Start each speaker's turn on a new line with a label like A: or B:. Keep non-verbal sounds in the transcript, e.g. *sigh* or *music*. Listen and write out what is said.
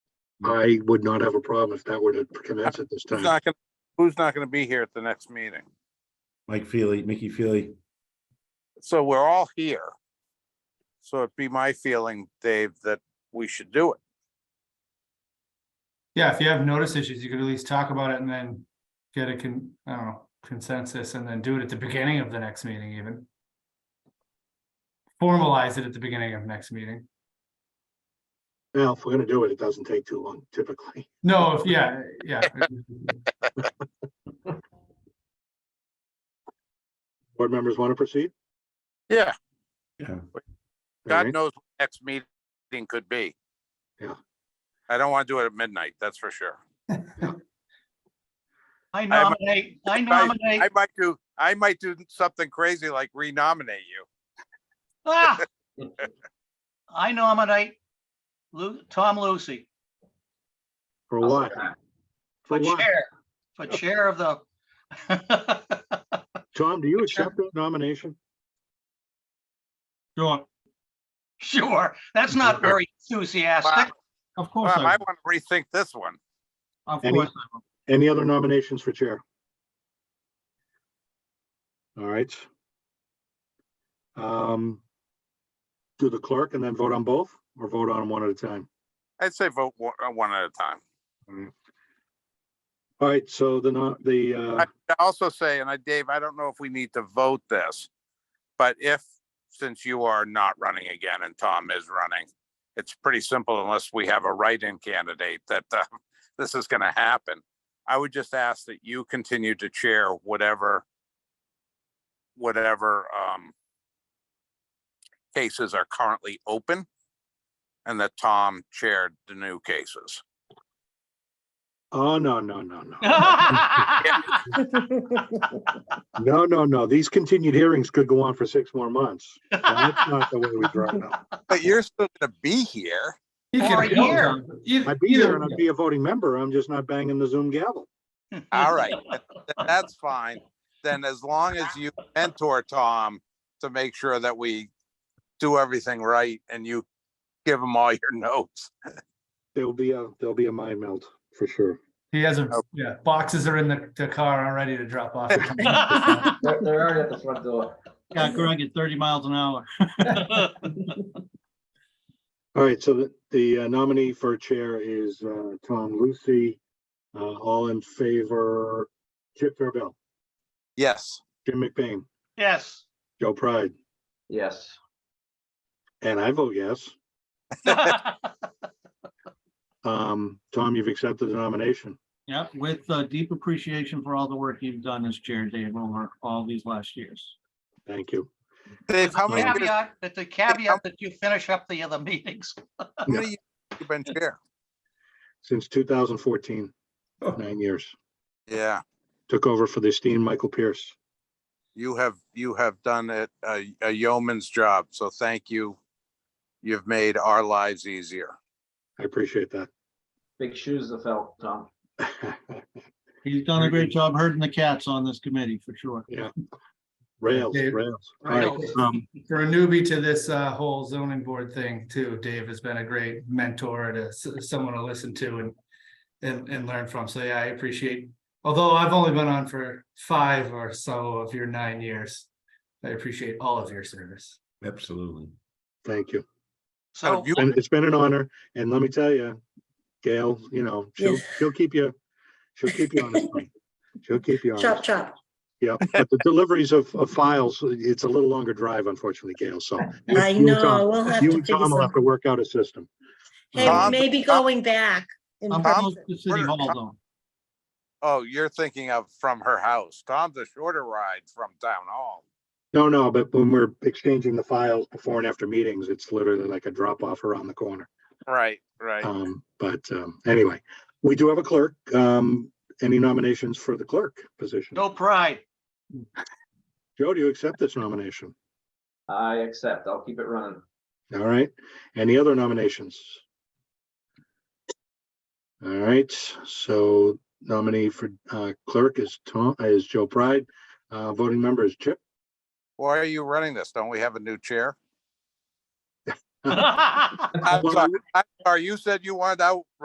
A: I would not have a problem if that were to commence at this
B: Who's
A: time.
B: not gonna, who's not gonna be here at the next meeting?
C: Mike Feely, Mickey Feely.
B: So we're all here. So it'd be my feeling, Dave, that we should do it.
D: Yeah, if you have notice issues, you could at least talk about it and then get a con, I don't know, consensus and then do it at the beginning of the next meeting even. Formalize it at the beginning of next meeting.
A: Now, if we're gonna do it, it doesn't take too long typically. *laughs*
D: No, if, yeah, yeah.
A: Board members want to proceed?
B: Yeah,
C: Yeah,
A: All
B: God
A: right.
B: knows what next meeting could be.
A: Yeah.
B: I don't wanna do it at midnight, that's for sure.
E: *laughs* I
B: might-
E: nominate, I
B: might-
E: nominate,
B: I might do, I might do something crazy like renominate you.
E: ah! I nominate Lu, Tom Lucy
A: For a lot.
E: for
A: For what?
E: chair, for chair of the.
A: Tom, do you
E: Sure.
A: accept that nomination?
D: Sure,
E: *laughs* Sure, that's not very enthusiastic.
D: of
B: Bob, Um,
E: Uh,
B: I wanna rethink this one.
D: of
A: Any- course Any other nominations for chair? All right. Um, do the clerk and then vote on both or vote on them one at a time?
B: I'd say vote one, uh, one at a time.
A: All right, so the, no- the, uh,
B: I also say, and I, Dave, I don't know if we need to vote this, but if, since you are not running again and Tom is running, it's pretty simple unless we have a write-in candidate that uh, *laughs* this is going to happen. I would just ask that you continue to chair whatever, whatever um, cases are currently open and that Tom chaired the new cases.
A: oh, no, no, no,
E: *laughs*
A: no. No, no, no. These continued hearings could go on for six more months. And That's not the way we draw it up.
B: But you're still going to be here.
E: For a year.
A: I'd be there and I'd be a voting member. I'm just not banging the Zoom gavel.
B: All right. th- that's fine. Then as long as you mentor Tom to make sure that we do everything right and you give him all your *laughs* notes.
A: There'll be a, there'll be a mind melt for sure.
D: He has a,
E: Oh.
D: yeah, boxes are in the, the car already to drop off.
F: They're, they're already at the front door.
E: Got Greg at thirty miles an hour.
A: All right, so the, the uh, nominee for chair is, uh, Tom Lucy. Uh, all in favor, Chip Fairville,
B: Yes.
A: Jim McBain,
B: *laughs*
E: Yes.
A: Joe Pride,
F: Yes.
A: and I vote yes.
E: *laughs* Yep,
A: Um, Tom, you've accepted the nomination.
E: with uh, deep appreciation for all the work you've done as chair, Dave, over all these last years.
A: Thank you.
B: Dave, how many years
E: Caveat, but the caveat that you finish up the other meetings.
B: how many years have you been chair?
A: Since 2014,
C: Oh.
A: nine years.
B: Yeah,
A: Took over for the esteemed Michael Pierce.
B: you have, you have done it a a yeoman's job. So thank you. You've made our lives easier.
A: I appreciate that.
F: Big shoes to fill, Tom.
E: He's done
A: a great
E: job herding the cats on this committee, for sure.
A: *laughs* Rails,
D: Dave.
A: rails. All right,
D: Rails.
A: um,
D: For a newbie to this uh whole zoning board thing too, Dave has been a great mentor to s- someone to listen to and. And and learn from, so yeah, I appreciate, although I've only been on for five or so of your nine years. I appreciate all of your service.
C: absolutely.
A: thank you.
E: So,
B: Oh, You-
A: And it's been an honor. And let me tell you, Gail, you know, she'll, she'll keep you, she'll keep you honest. buddy. She'll keep you
G: Chop,
A: honest.
G: chop.
A: Yeah, but the deliveries of, of files, it's a little longer drive unfortunately, Gail, so. you-
G: I
A: you and Tom-
G: know, we'll have
A: You
G: to
A: and
G: figure
A: Tom will have to
G: something.
A: work out a system. Um,
G: Hey,
B: Tom-
G: maybe going back. in
B: I'm-
G: person.
B: City Hall Oh, you're thinking of from her house. Tom's a shorter ride from town hall.
A: No, no, but when we're exchanging the files before and after meetings, it's literally like a drop off around the corner.
B: Right, right.
A: Um, but, um, anyway, we do have a clerk. Um, any nominations for the clerk position?
E: no pride. *laughs*
A: Joe, do you accept this nomination?
F: I accept. I'll keep it running.
A: All right. Any other nominations? All right, so nominee for, uh, clerk is Tom, is Joe Pride. Uh, voting member is Chip.
B: Why are you running this? Don't we have a new chair?
E: All
B: I'm
A: Well,
B: sorry, I'm sorry, you said you wanted out